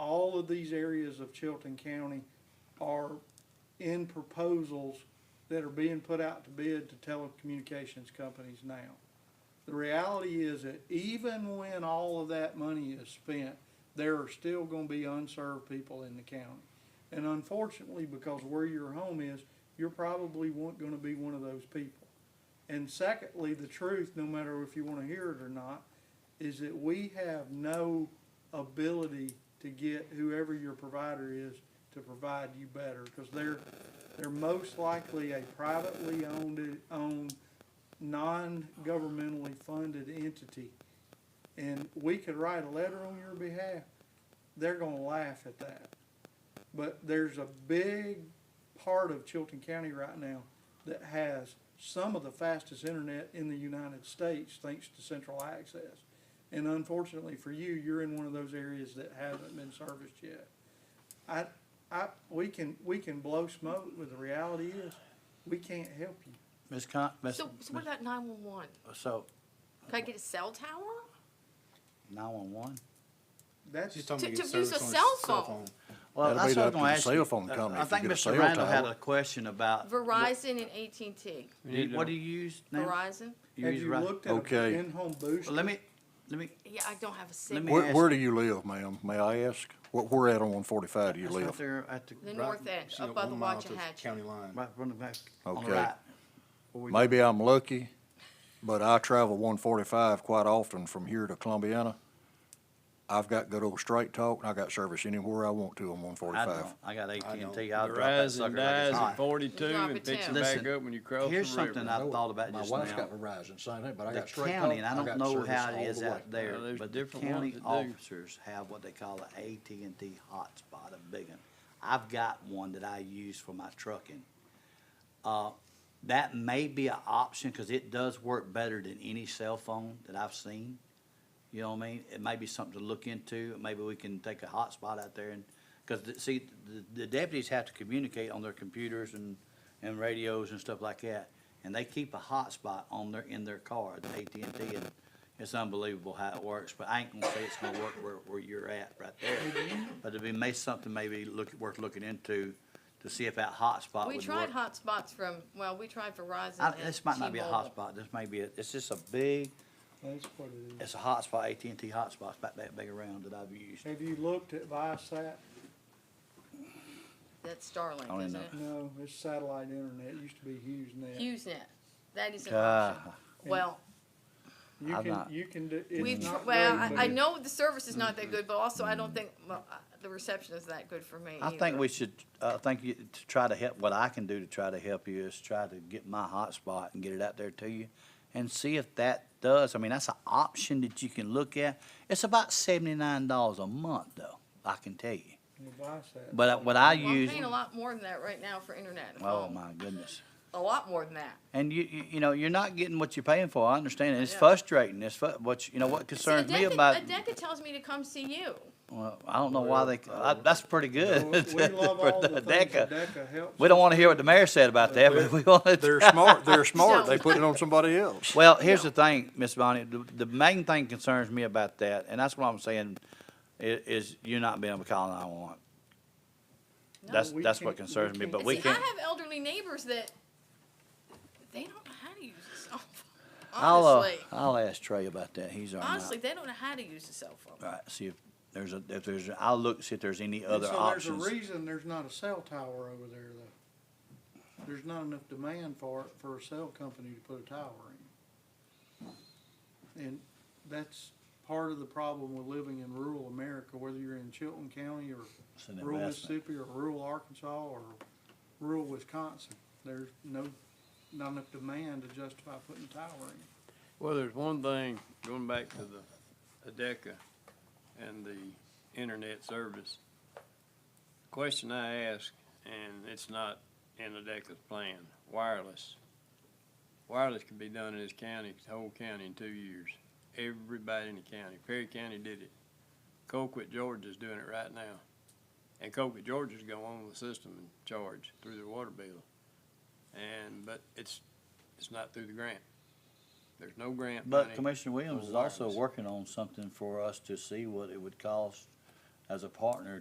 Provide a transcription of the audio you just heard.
of these areas of Chilton County are in proposals that are being put out to bid to telecommunications companies now. The reality is that even when all of that money is spent, there are still gonna be unserved people in the county. And unfortunately, because where your home is, you're probably will gonna be one of those people. And secondly, the truth, no matter if you wanna hear it or not, is that we have no ability to get whoever your provider is to provide you better, cause they're, they're most likely a privately owned, owned, non-governmentally funded entity. And we could write a letter on your behalf, they're gonna laugh at that. But there's a big part of Chilton County right now that has some of the fastest internet in the United States, thanks to central access. And unfortunately for you, you're in one of those areas that hasn't been serviced yet. I, I, we can, we can blow smoke, but the reality is, we can't help you. Ms. Con, Ms. So, so what about nine-one-one? So, Could I get a cell tower? nine-one-one? That's, She's To- talking about to use service a on cell his phone. cell phone. Well, That'll that's be what up I'm to gonna the ask you. uh, cell phone company I if you think get a Mr. cell Randall had tower. a question about. Verizon and AT&T. Did- What do you use now? Verizon? You have use you Ri- looked at an Okay. in-home booster? Well, Let me, let me, Yeah, I don't have a Let signal. me- Where, where do you live, ma'am? May I ask? What, where at on one forty-five do you that's right live? there at the. The right- north end, She's "Oh, up got by the one mile to Watchahatchee. County line. Right, running back on the Okay. right. Where we- Maybe I'm lucky, but I travel one forty-five quite often from here to Columbiana. I've got good old straight talk and I got service anywhere I want to on one I forty-five. don't, I got AT&T, I'll drop that Verizon sucker like it's dies at hot. forty-two Drop it and picks down. it back Listen, up when you cross the here's something I river. thought about just now. Verizon, same thing, but The county, and I don't know how it is out there, Well, there's but the different ones county that do. officers have what they call a AT&T hotspot, a big one. I've got one that I use for my trucking. Uh, that may be an option, cause it does work better than any cell phone that I've seen. You know what I mean? It may be something to look into. Maybe we can take a hotspot out there and, because, see, the, the deputies have to communicate on their computers and, and radios and stuff like that. And they keep a hotspot on their, in their car, the AT&T, and it's unbelievable how it works. But I ain't gonna say it's gonna work where, where you're at right there. But it'd be, may something maybe look, worth looking into to see if that hotspot would We work. tried hotspots from, well, we tried Verizon I- and T-Mobile. Uh, This might not be a hotspot. This may be, a- it's just a big, That's what it is. it's a hotspot, AT&T hotspot's about that big around that I've used. Have you looked at Viasat? That's I Starlink, don't isn't know. it? No, it's satellite internet, it used to be HughesNet. HughesNet. That is an option. God. Well, You I'm can, not- you can do, we, it's not well, great, I- but I it- know the service is not that good, but also I don't think, well, I- the reception is that good for me I think either. we should, I think you, to try to help, what I can do to try to help you is try to get my hotspot and get it out there to you and see if that does. I mean, that's an option that you can look at. It's about seventy-nine dollars a month though, I can tell you. you know, Viasat. But I- what I Well, I'm use, paying a lot more than that right now for internet at oh home. my goodness. A lot more than that. And you, you, you know, you're not getting what you're paying for. I understand. it. It's Yeah. frustrating. It's fu- what, you- you know, what See, concerns me Adenka, about, Adenka tells me to come see you. well, I don't know why they, I- that's pretty Well, good. uh, We love for all the things that DECA. DECA helps. We don't wanna hear what the mayor said about that, but we wanna. They're smart, they're smart. So- They put it on somebody else. Well, here's the thing, Ms. Bonnie, the, the main thing concerns me about that, and that's what I'm saying, i- is you not being able to call nine-one-one. No, That's, we that's what can't- we concerns me, can't. but And we see, can't, I have elderly neighbors that they don't know how to use a cell phone. I'll, uh, Honestly, I'll ask Trey about that, he's our. honestly, they don't know how to use a cell phone. Right, see if there's a, if there's, I'll look, see if there's any And other So options. there's a reason there's not a cell tower over there though. There's not enough demand for, it for a cell company to put a tower in. And that's part of the problem with living in rural America, whether you're in Chilton County or It's an rural investment. Mississippi or rural Arkansas or rural Wisconsin. There's no, not enough demand to justify putting a tower in. Well, there's one thing, going back to the ADECA and the internet service. The Question I ask, and it's not in ADECA's plan, wireless. Wireless can be done in this county, the whole county in two years. Everybody in the county, Perry County did it. Colquitt, Georgia's doing it right now. And Colquitt, Georgia's going on the system and charge through their water bill. And, but it's, it's not through the grant. There's no grant money. But Commissioner Williams is also wireless. working on something for us to see what it would cost as a partner